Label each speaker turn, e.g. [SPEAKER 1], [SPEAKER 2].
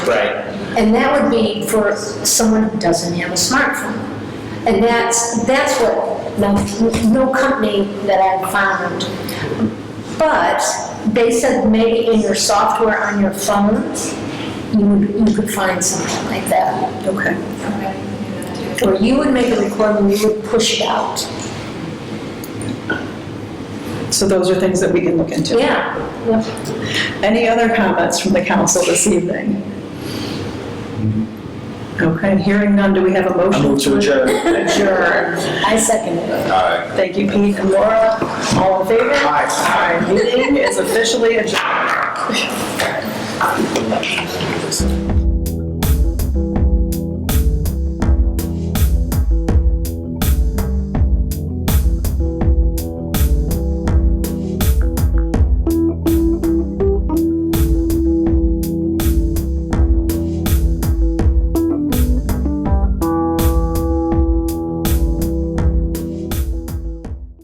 [SPEAKER 1] Right.
[SPEAKER 2] And that would be for someone who doesn't have a smartphone. And that's, that's what, no, no company that I've found. But they said maybe in your software on your phone, you would, you could find something like that.
[SPEAKER 3] Okay.
[SPEAKER 2] Or you would make a recording, you would push it out.
[SPEAKER 3] So those are things that we can look into.
[SPEAKER 2] Yeah.
[SPEAKER 3] Any other comments from the council this evening? Okay, hearing none, do we have a motion?
[SPEAKER 1] I move to adjourn.
[SPEAKER 3] Adjourn.
[SPEAKER 2] I second it.
[SPEAKER 3] Thank you, Pete and Laura. All in favor? Aye. Meeting is officially adjourned.